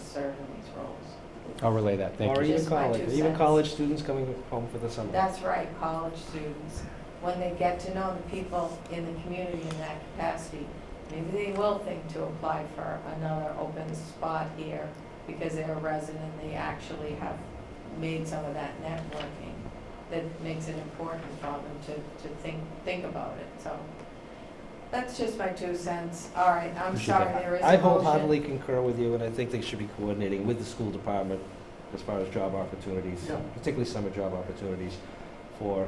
serve in these roles. I'll relay that, thank Or you. even Just my college, two even cents. college students coming home for the summer. That's right, college students, when they get to know the people in the community in that capacity, maybe they will think to apply for another open spot here because they're a resident, they actually have made some of that networking that makes it important for them to, to think, think about it, so. That's just my two cents. All right, I'm We should sorry, have- there is a I motion. wholeheartedly concur with you, and I think they should be coordinating with the school department as far as job opportunities, Yeah. particularly summer job opportunities for,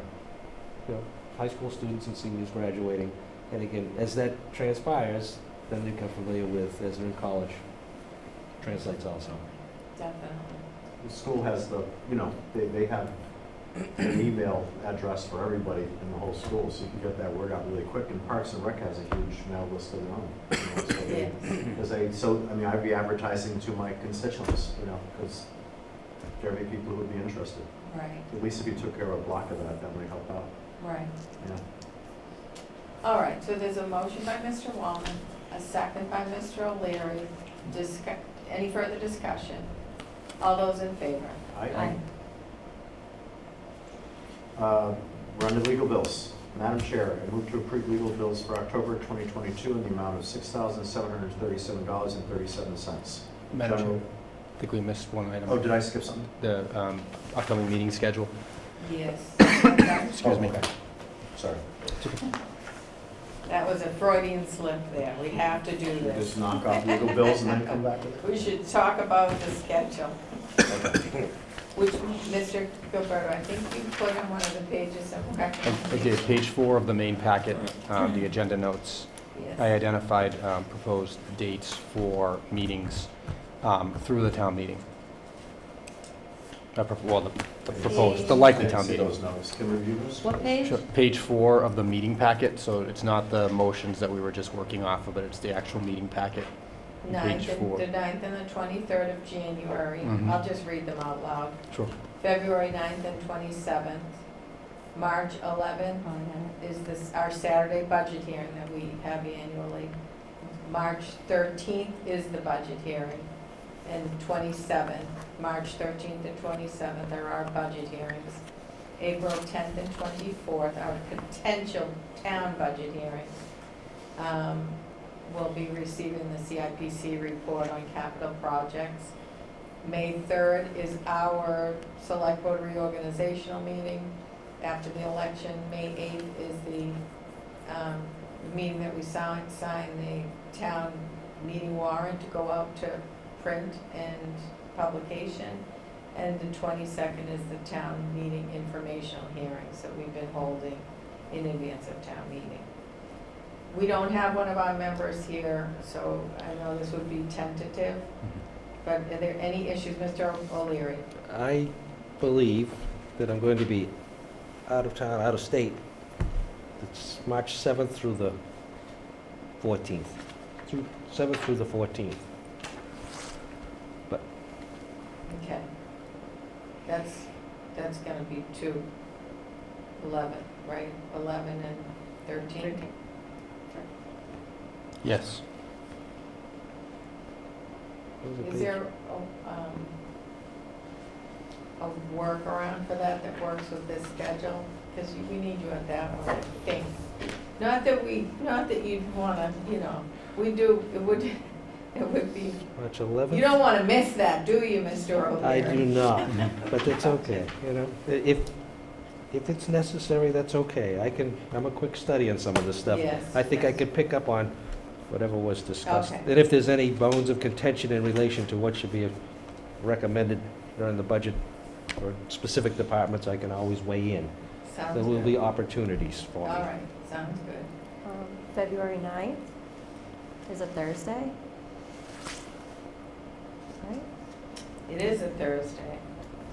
you know, high school students and seniors graduating. And again, as that transpires, then they become familiar with, as they're in college, translates also. Definitely. The school has the, you know, they, they have an email address for everybody in the whole school, so you can get that word out really quick. And Parks and Rec has a huge mail list of their own. Because they, so, I mean, I'd be advertising to my constituents, you know, because there may be people who would be interested. Right, At least if you took care of a block of that, that might help out, right. yeah. All right, so there's a motion by Mr. Wallman, a second by Mr. O'Leary. Discuss, any further discussion? All those in favor? I, Uh, We're on to legal bills. Madam Chair, I move to approve legal bills for October 2022 in the amount of $6,737.37. Madam So- Chair, I think we missed one item. Oh, did I skip something? The um, upcoming meeting schedule, Yes. excuse me. Oh, okay. Sorry. That was a Freudian slip there. We have to do this. Just knock off legal bills and then come back with it? We should talk about the schedule, which, Mr. Gilberto, I think you put on one of the pages somewhere. I did, page four of the main packet, um, the agenda notes. I Yes, identified um, proposed dates for meetings um, through the town meeting. Uh, pro- Well, the the proposed, the likely Didn't town see meeting. those notes. Can we review those? What page? Sure. Page four of the meeting packet, so it's not the motions that we were just working off of, but it's the actual meeting packet. ninth, page and- four. the ninth and the twenty-third of January. Mhm. I'll just read them out loud. Sure. February 9th and 27th. March 11th is this, our Saturday budget hearing that we have annually. March 13th is the budget hearing, and 27th, March 13th and 27th are our budget hearings. April 10th and 24th are potential town budget hearings. Um, We'll be receiving the CIPC report on capital projects. May 3rd is our select board reorganizational meeting after the election. May 8th is the um, meeting that we sign, sign the town meeting warrant to go out to print and publication. And the 22nd is the town meeting informational hearings that we've been holding in advance of town meeting. We don't have one of our members here, so I know this would be tentative. But are there any issues, Mr. O'Leary? I believe that I'm going to be out of town, out of state. It's March 7th through the 14th, through, 7th through the 14th. Okay. That's, that's gonna be two, eleven, right? Eleven and thirteen? Yes. What was the Is page? there, a, um, a workaround for that that works with this schedule? Because we need you at that one, I think. Not that we, not that you'd wanna, you know, we do, it would, it would be, March you 11th? don't wanna miss that, do you, Mr. I O'Leary? do not, but that's okay, you know, I- if, if it's necessary, that's okay. I can, I'm a quick study on some of this stuff. Yes, I think I yes. could pick up on whatever was discussed. Okay. And if there's any bones of contention in relation to what should be recommended during the budget or specific departments, I can always weigh in. Sounds There will be good. opportunities All for me. right, sounds good. Um, February 9th is a Thursday. Right? It is a Thursday.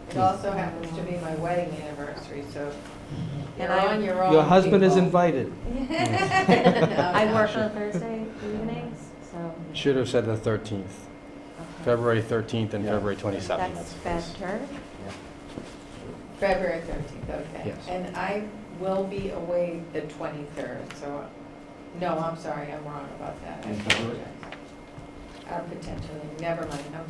It also happens to be my wedding anniversary, so you're And I- on your own. Your husband is people. invited. I No, work no. on Thursday evenings, so. Should have said the 13th, okay. February 13th and Yeah. February 27th. That's That's- better. February thirteenth, okay. Yes. And I will be away the twenty-third, so, no, I'm sorry, I'm wrong about that. I In February? apologize. Uh, Potentially, never mind, I'm